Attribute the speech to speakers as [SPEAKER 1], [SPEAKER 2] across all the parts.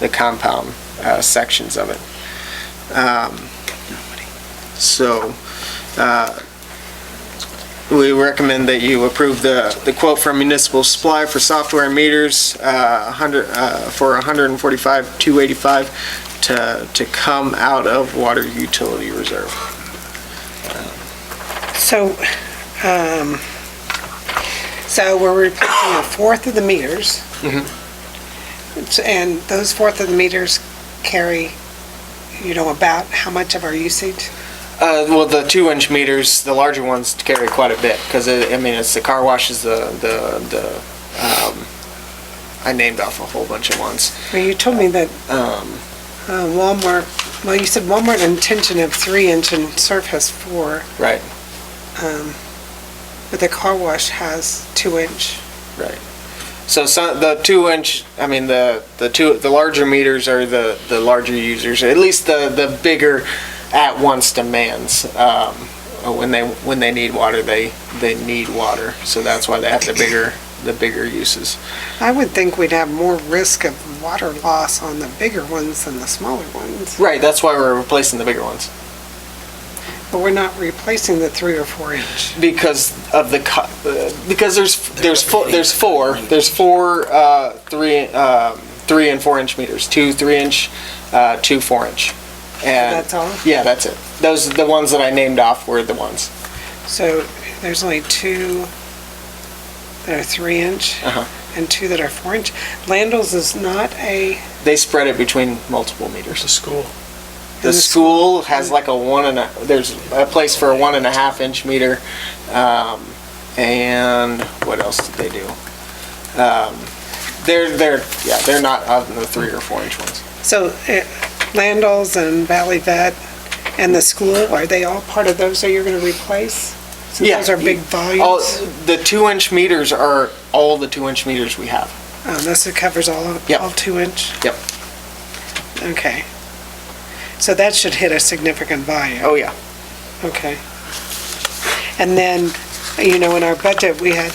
[SPEAKER 1] the compound uh, sections of it. Um, So, uh, we recommend that you approve the, the quote from Municipal Supply for software and meters, uh, 100, uh, for 145, 285 to, to come out of water utility reserve.
[SPEAKER 2] So, um, so we're replacing a fourth of the meters.
[SPEAKER 1] Mhm.
[SPEAKER 2] It's- And those fourth of the meters carry, you know, about how much of our usage?
[SPEAKER 1] Uh, well, the two-inch meters, the larger ones carry quite a bit, because, I mean, it's the car washes, the, the, the, um, I named off a whole bunch of ones.
[SPEAKER 2] Well, you told me that
[SPEAKER 1] Um,
[SPEAKER 2] uh, Walmart, well, you said Walmart intention of three inch and Surf has four,
[SPEAKER 1] right,
[SPEAKER 2] um, but the car wash has two inch.
[SPEAKER 1] right. So some, the two-inch, I mean, the, the two, the larger meters are the, the larger users, at least the, the bigger at-once demands. Um, uh, when they, when they need water, they, they need water, so that's why they have the bigger, the bigger uses.
[SPEAKER 2] I would think we'd have more risk of water loss on the bigger ones than the smaller ones.
[SPEAKER 1] Right, that's why we're replacing the bigger ones.
[SPEAKER 2] But we're not replacing the three or four inch.
[SPEAKER 1] because of the co- uh, because there's there's four there's four there's four uh, three um, three and four inch meters two three inch uh, two four inch and
[SPEAKER 2] That's all?
[SPEAKER 1] yeah that's it those the ones that I named off were the ones
[SPEAKER 2] So there's only two that are three inch
[SPEAKER 1] Uh-huh.
[SPEAKER 2] and two that are four inch. Landals is not a,
[SPEAKER 1] they spread it between multiple meters
[SPEAKER 3] The school.
[SPEAKER 1] the
[SPEAKER 2] And the
[SPEAKER 1] school has like a one and a there's a place for a one and a half inch meter um, and what else did they do um, they're they're yeah they're not on the three or four inch ones
[SPEAKER 2] so uh, Landals and Valley Vet and the school, are they all part of those that you're going to replace? Since
[SPEAKER 1] Yeah. Oh.
[SPEAKER 2] Those are big
[SPEAKER 1] All,
[SPEAKER 2] volumes.
[SPEAKER 1] the two-inch meters are all the two-inch meters we have.
[SPEAKER 2] Um, This covers all, of-
[SPEAKER 1] Yep.
[SPEAKER 2] all two inch?
[SPEAKER 1] Yep.
[SPEAKER 2] Okay. So that should hit a significant volume.
[SPEAKER 1] Oh, yeah.
[SPEAKER 2] Okay. And then, you know, in our budget, we had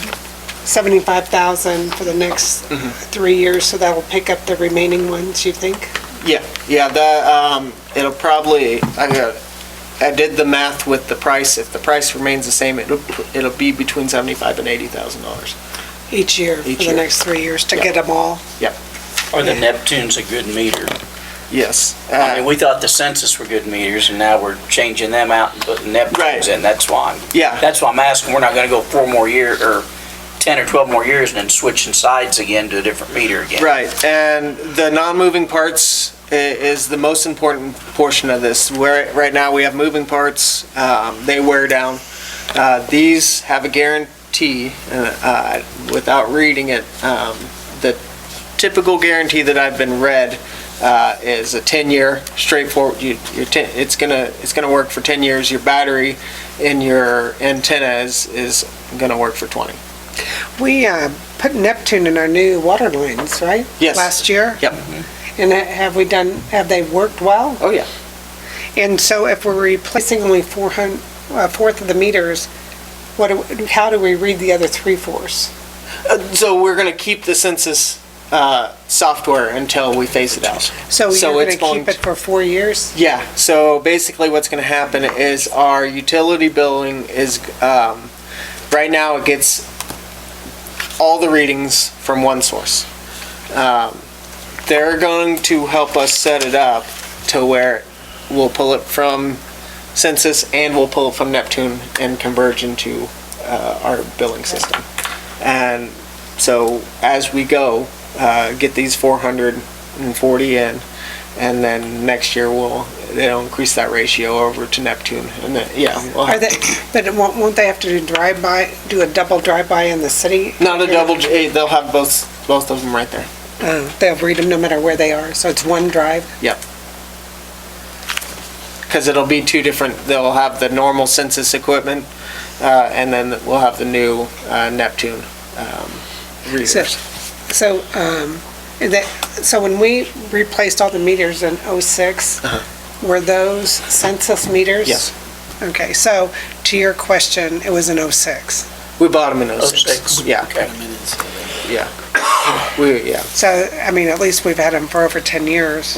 [SPEAKER 2] 75,000 for the next
[SPEAKER 1] Mm-hmm.
[SPEAKER 2] three years, so that'll pick up the remaining ones, you think?
[SPEAKER 1] Yeah, yeah, the, um, it'll probably, I got, I did the math with the price. If the price remains the same, it'll, it'll be between seventy-five and eighty thousand dollars.
[SPEAKER 2] Each year
[SPEAKER 1] Each
[SPEAKER 2] for the
[SPEAKER 1] year.
[SPEAKER 2] next three years to
[SPEAKER 1] Yeah.
[SPEAKER 2] get them all?
[SPEAKER 3] Or the
[SPEAKER 2] Yeah.
[SPEAKER 3] Neptune's a good meter.
[SPEAKER 1] Yes.
[SPEAKER 3] I
[SPEAKER 1] Uh,
[SPEAKER 3] mean, we thought the census were good meters, and now we're changing them out and putting
[SPEAKER 1] Right.
[SPEAKER 3] Neptune's in. That's why, I'm-
[SPEAKER 1] yeah,
[SPEAKER 3] that's why I'm asking, we're not gonna go four more year, or 10 or 12 more years and then switching sides again to a different meter again.
[SPEAKER 1] right. And the non-moving parts i- is the most important portion of this. Where, right now, we have moving parts, um, they wear down. Uh, these have a guarantee, uh, uh, without reading it, um, the typical guarantee that I've been read, uh, is a ten-year straightforward, you, your ten, it's gonna, it's gonna work for ten years. Your battery and your antenna is, is gonna work for twenty.
[SPEAKER 2] We uh, put Neptune in our new water lines, right?
[SPEAKER 1] Yes.
[SPEAKER 2] Last year? Mm-hmm.
[SPEAKER 1] Yep.
[SPEAKER 2] And ha- have we done, have they worked well?
[SPEAKER 1] Oh, yeah.
[SPEAKER 2] And so if we're replacing only 400, a fourth of the meters, what, do- how do we read the other three-fourths?
[SPEAKER 1] Uh, So we're going to keep the census uh, software until we phase it out.
[SPEAKER 2] So
[SPEAKER 1] So
[SPEAKER 2] you're
[SPEAKER 1] it's
[SPEAKER 2] going to keep
[SPEAKER 1] going-
[SPEAKER 2] it for four years?
[SPEAKER 1] Yeah, so basically what's going to happen is our utility billing is, um, right now it gets all the readings from one source. Um, They're going to help us set it up to where we'll pull it from census and we'll pull it from Neptune and converge into uh, our billing system. And so as we go, uh, get these 440 in, and then next year we'll, they'll increase that ratio over to Neptune, and then, yeah. we'll
[SPEAKER 2] Are
[SPEAKER 1] have-
[SPEAKER 2] they, but it won't, won't they have to do drive-by, do a double drive-by in the city?
[SPEAKER 1] Not a double, eh, they'll have both, both of them right there.
[SPEAKER 2] Uh, They'll read them no matter where they are, so it's one drive.
[SPEAKER 1] Because it'll be two different, they'll have the normal census equipment, uh, and then we'll have the new uh, Neptune um, readers.
[SPEAKER 2] So, um, that, so when we replaced all the meters in '06, were those census meters?
[SPEAKER 1] Uh-huh. Yes.
[SPEAKER 2] Okay, so to your question, it was in '06.
[SPEAKER 1] We bought them in
[SPEAKER 3] Oh,
[SPEAKER 1] '06.
[SPEAKER 3] six.
[SPEAKER 1] Yeah.
[SPEAKER 3] Okay.
[SPEAKER 1] yeah. We, yeah.
[SPEAKER 2] So, I mean, at least we've had them for over 10 years.